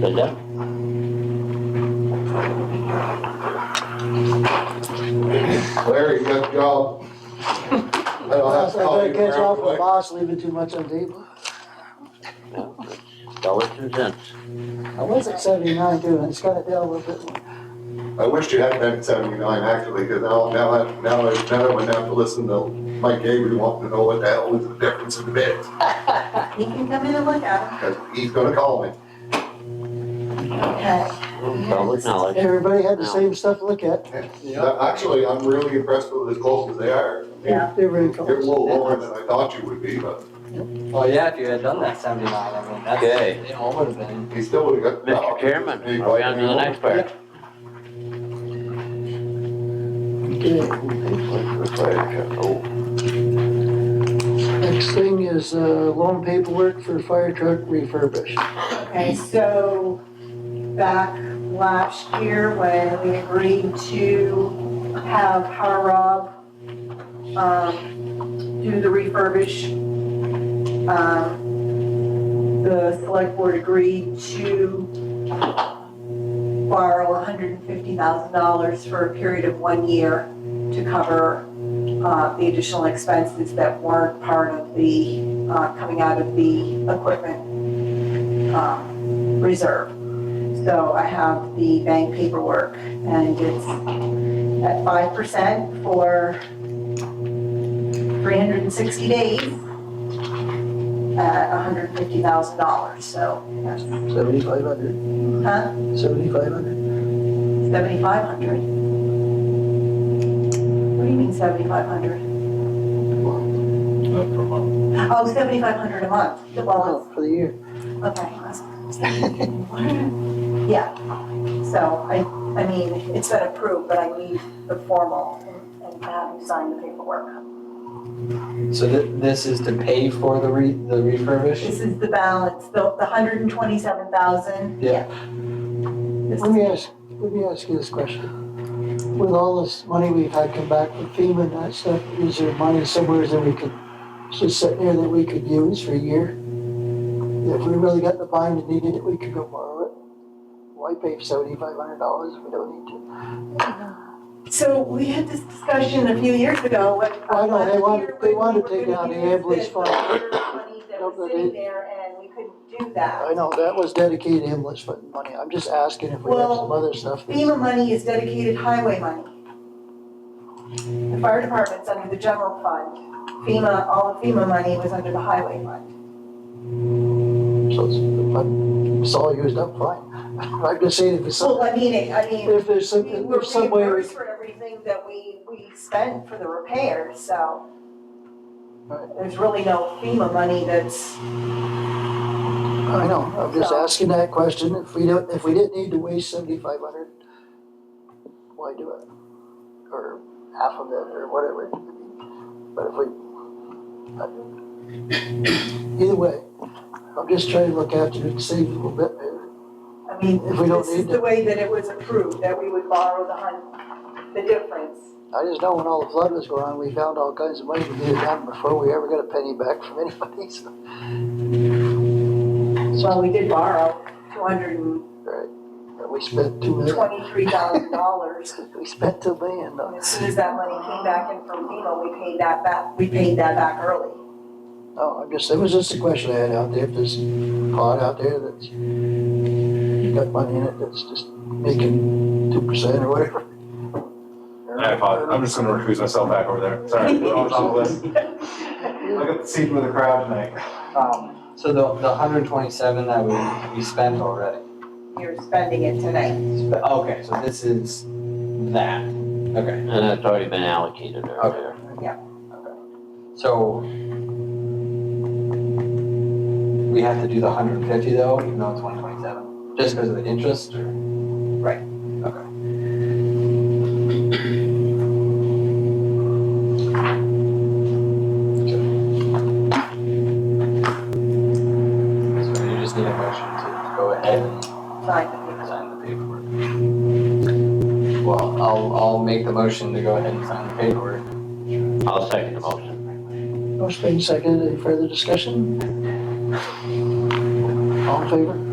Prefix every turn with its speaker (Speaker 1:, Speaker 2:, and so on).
Speaker 1: Does that?
Speaker 2: Larry, good job. I don't have
Speaker 3: Unless
Speaker 2: to
Speaker 3: I
Speaker 2: call you
Speaker 3: better catch
Speaker 2: real
Speaker 3: off with the
Speaker 2: quick.
Speaker 3: boss leaving too much on the table.
Speaker 1: No, Dollars and cents.
Speaker 3: I was at seventy-nine too, and it's got it down a little bit more.
Speaker 2: I wish you had been at seventy-nine actually, because now, now, I- now, I- now I wouldn't have to listen to Mike Avery wanting to know what the hell is the difference in bids.
Speaker 4: He can come in and look at
Speaker 2: Cause he's gonna call me.
Speaker 4: them.
Speaker 1: Public knowledge.
Speaker 3: Everybody had the same stuff to look at.
Speaker 2: Uh, Actually, I'm really impressed with as close as they are.
Speaker 4: Yeah.
Speaker 3: They were in
Speaker 2: You're a
Speaker 3: close.
Speaker 2: little lower than I thought you would be, but
Speaker 5: Well, yeah, if you had done that seventy-nine, I mean, that's,
Speaker 1: Okay.
Speaker 5: it all would have been.
Speaker 2: he still would've got.
Speaker 1: Mr. Chairman, are we on to the next part? Oh,
Speaker 3: Next thing is, uh, loan paperwork for fire truck refurbish.
Speaker 4: Okay, so back last year when we agreed to have Power Rob, um, do the refurbish, um, the select board agreed to borrow hundred and fifty thousand dollars for a period of one year to cover, uh, the additional expenses that weren't part of the, uh, coming out of the equipment um, reserve. So I have the bank paperwork and it's at five percent for three hundred and sixty days at hundred and fifty thousand dollars, so that's,
Speaker 3: Seventy-five hundred.
Speaker 4: huh,
Speaker 3: Seventy-five hundred.
Speaker 4: seventy-five hundred. What do you mean seventy-five hundred? Oh, seventy-five hundred a month, well, it's
Speaker 3: Oh, for the year.
Speaker 4: Okay. Yeah, so I, I mean, it's been approved, but I need the formal and- and have you sign the paperwork.
Speaker 5: So thi- this is to pay for the re, the refurbish?
Speaker 4: This is the balance, the, the hundred and twenty-seven thousand.
Speaker 5: Yeah.
Speaker 4: This
Speaker 3: Let me
Speaker 4: is,
Speaker 3: ask, let me ask you this question. With all this money we've had come back from FEMA and that stuff, is there money somewhere that we could, just sitting there that we could use for a year? If we really got in the bind and needed it, we could go borrow it. Why pay seventy-five hundred dollars if we don't need to?
Speaker 4: so we had this discussion a few years ago, what.
Speaker 3: I know, they want-
Speaker 4: last year
Speaker 3: they
Speaker 4: when
Speaker 3: want to
Speaker 4: we were
Speaker 3: take
Speaker 4: gonna
Speaker 3: out the
Speaker 4: use
Speaker 3: ambulance
Speaker 4: this
Speaker 3: fund.
Speaker 4: other Money that was
Speaker 3: No, they-
Speaker 4: sitting there and we couldn't do that.
Speaker 3: I know, that was dedicated ambulance fund money. I'm just asking if we have some other stuff. that's-
Speaker 4: FEMA money is dedicated highway money. The fire department's under the general fund. FEMA, all the FEMA money was under the highway fund.
Speaker 3: So it's, if it's all used up, fine. I'm just saying if it's some,
Speaker 4: So, I mean, it- I mean,
Speaker 3: if there's some,
Speaker 4: we
Speaker 3: if
Speaker 4: were
Speaker 3: there's some way. we-
Speaker 4: reimbursed for everything that we, we spent for the repairs, so.
Speaker 3: Right.
Speaker 4: There's really no FEMA money that's,
Speaker 3: I know, I'm just asking that question, if we don't, if we didn't need to waste seventy-five hundred, why do it? Or half of it, or whatever, but if we. Either way, I'm just trying to look after it, save a little bit there.
Speaker 4: I mean,
Speaker 3: If we don't
Speaker 4: this is
Speaker 3: need
Speaker 4: the way that it was approved, that we would borrow the hun, the difference.
Speaker 3: I just know when all the flood was going on, we found all kinds of money to get it done before we ever got a penny back from anybody, so.
Speaker 4: Well, we did borrow two hundred and
Speaker 3: Right, we spent two million,
Speaker 4: twenty-three thousand dollars
Speaker 3: we spent two million
Speaker 4: And
Speaker 3: dollars.
Speaker 4: As soon as that money came back in from FEMA, we paid that back, we paid that back early.
Speaker 3: No, I'm just, it was just a question I had out there, if there's a pot out there that's got money in it that's just making two percent or whatever.
Speaker 6: I apologize. I'm just gonna recuse myself back over there. Sorry, we're on top of this. I got the seat with the crowd tonight.
Speaker 5: Um, so the, the hundred and twenty-seven that we, we spent already.
Speaker 4: You're spending it tonight.
Speaker 5: Spe- Okay, so this is that. Okay,
Speaker 1: And that's already been allocated earlier.
Speaker 5: so we have to do the hundred and fifty though, even though it's one twenty-seven, just because of the interest or? Right. Okay. So you just need a motion to go ahead and
Speaker 4: Sign the paper.
Speaker 5: sign the paperwork. Well, I'll, I'll make the motion to go ahead and sign the paperwork.
Speaker 1: I'll second the motion.
Speaker 3: Motion being seconded, any further discussion? All in favor?